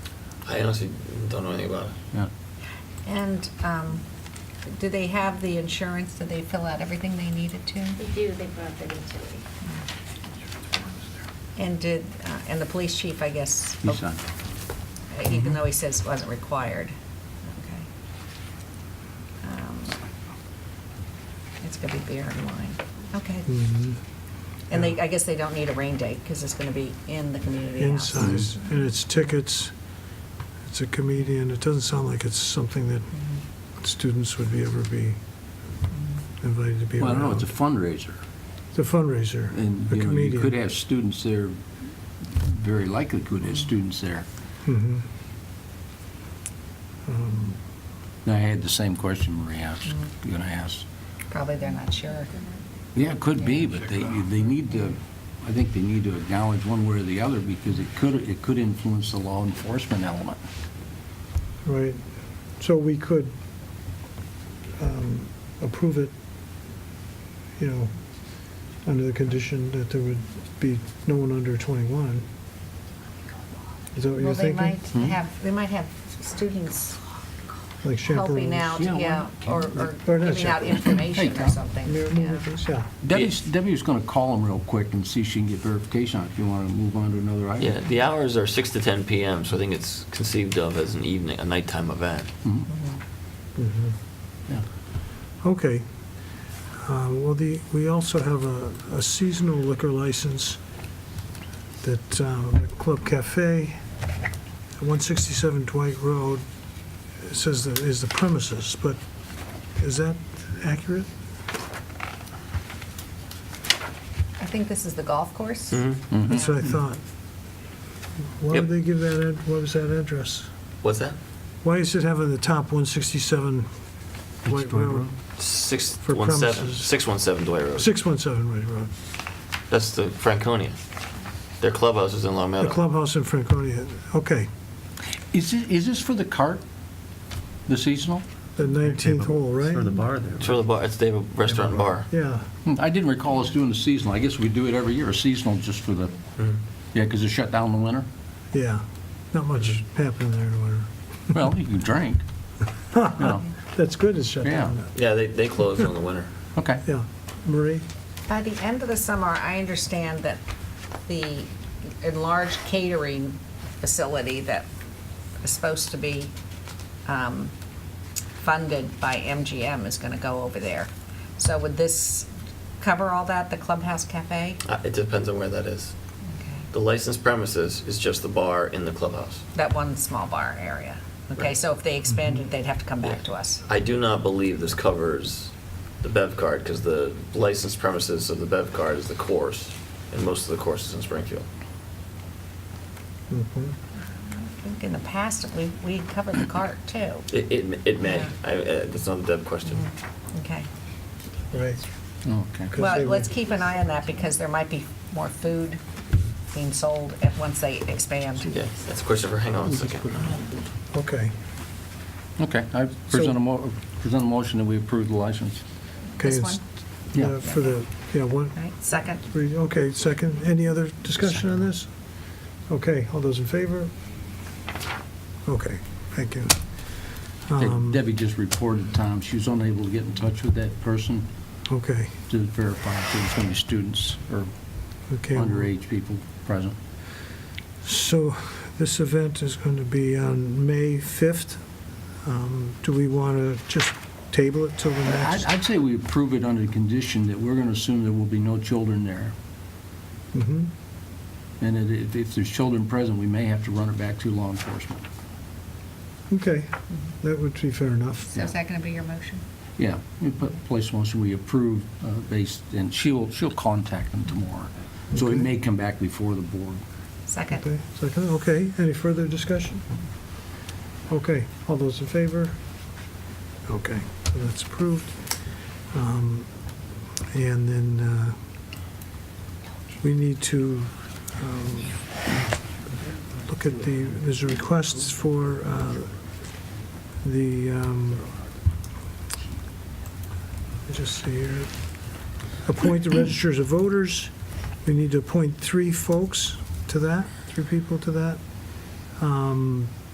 I honestly don't know anything about it. Yeah. And um, do they have the insurance? Did they fill out everything they needed to? They do, they brought that into me. And did, uh, and the police chief, I guess? oh, He signed. Even Mhm. though he says it wasn't required? Okay. Um, It's going to be beer and wine. Okay. Mm-hmm. And they, I guess they don't need a rain date because it's going to be in the community house. Inside, and it's tickets, it's a comedian, it doesn't sound like it's something that Mhm. students would be, ever be invited to be Well, I around. don't know, it's a fundraiser. It's a fundraiser, And, a you know, you could comedian. have students there, very likely could have students there. Mhm. Um, And I had the same question Marie asked, gonna ask. Probably they're not sure. Yeah, it could be, but they, they need to, I think they need to acknowledge one way or the other because it could, it could influence the law enforcement element. Right, so we could um, approve it, you know, under the condition that there would be no one under 21. Is that what Well, you're they thinking? might Hmm? have, they might have students Like helping chaperones. out, Yeah, why yeah, not? or or Or giving not out chaperones. information Hey, or Tom. something. Yeah, yeah. moving- Yeah, Debbie's, Debbie's gonna call them real quick and see if she can get verification on it, if you wanna move on to another item. Yeah, the hours are 6 to 10 p.m., so I think it's conceived of as an evening, a nighttime event. Mhm, Mhm. yeah. okay. Uh, Well, the, we also have a- a seasonal liquor license that um, Club Cafe, 167 Dwight Road, it says that is the premises, but is that accurate? I think this is the golf course. Mm-hmm. Mhm. That's what I thought. Why Yep. would they give that, ad- what was that address? What's that? Why is it having the top 167 Dwight Dwight Road? Road. For 617, premises. 617 Dwight Road. 617 Dwight Road. That's the Franconia. Their clubhouse is in Long The Meadow. clubhouse in Franconia, okay, Is it, is this for the cart, the seasonal? the 19th hole, right? Or the bar there. It's for the bar, it's their restaurant and bar. Yeah, Hmm, I didn't recall us doing the seasonal. I guess we do it every year, a seasonal just for the, Hmm. yeah, because it's shut down in the winter. yeah, not much happened there, or, Well, you can drink. You know, that's good it's shut down. Yeah, they, they close in the winter. Okay. Yeah, Marie, By the end of the summer, I understand that the enlarged catering facility that is supposed to be um, funded by MGM is going to go over there. So would this cover all that, the Clubhouse Cafe? Uh, It depends on where that is. Okay. The licensed premises is just the bar in the clubhouse. That one small bar area. Okay, Right. so if they expanded, Mm-hmm. they'd have to come back to us. I do not believe this covers the Bev card, because the licensed premises of the Bev card is the course, and most of the courses in Springfield. Mhm. I think in the past, we, we covered the cart too. It, it, it may, Yeah. I, uh, that's not a Bev question. Okay. right, Okay. Good. 'Cause they Well, were- let's keep an eye on that because there might be more food being sold at, once they expand. Yeah, that's a question for, hang on a second. okay. Okay, I present a mo, present a motion that we approve the license. Okay, This it's- one? Yeah. uh, For the, yeah, one, Right, second? three, okay, second, any other discussion on this? Okay, all those in favor? Okay, thank you. Okay, Um, Debbie just reported, Tom, she was unable to get in touch with that person Okay, to verify if there was any students or okay. underage people present. So this event is going to be on May 5th. Um, Do we want to just table it till the I'd, next? I'd say we approve it under the condition that we're going to assume there will be no children there. Mhm. And it- if, if there's children present, we may have to run it back to law enforcement. Okay, that would be fair enough. So is that going to be your motion? Yeah, we put place motion, we approve uh, based, and she'll, she'll contact them tomorrow. So it Okay. may come back before the board. Second? Okay, second, okay, any further discussion? Okay, all those in favor? Okay, so that's approved. Um, And then uh, we need to um, look at the, there's a request for uh, the, um, let me just see here, appoint the registers of voters. We need to appoint three folks to that, three people to that. Um,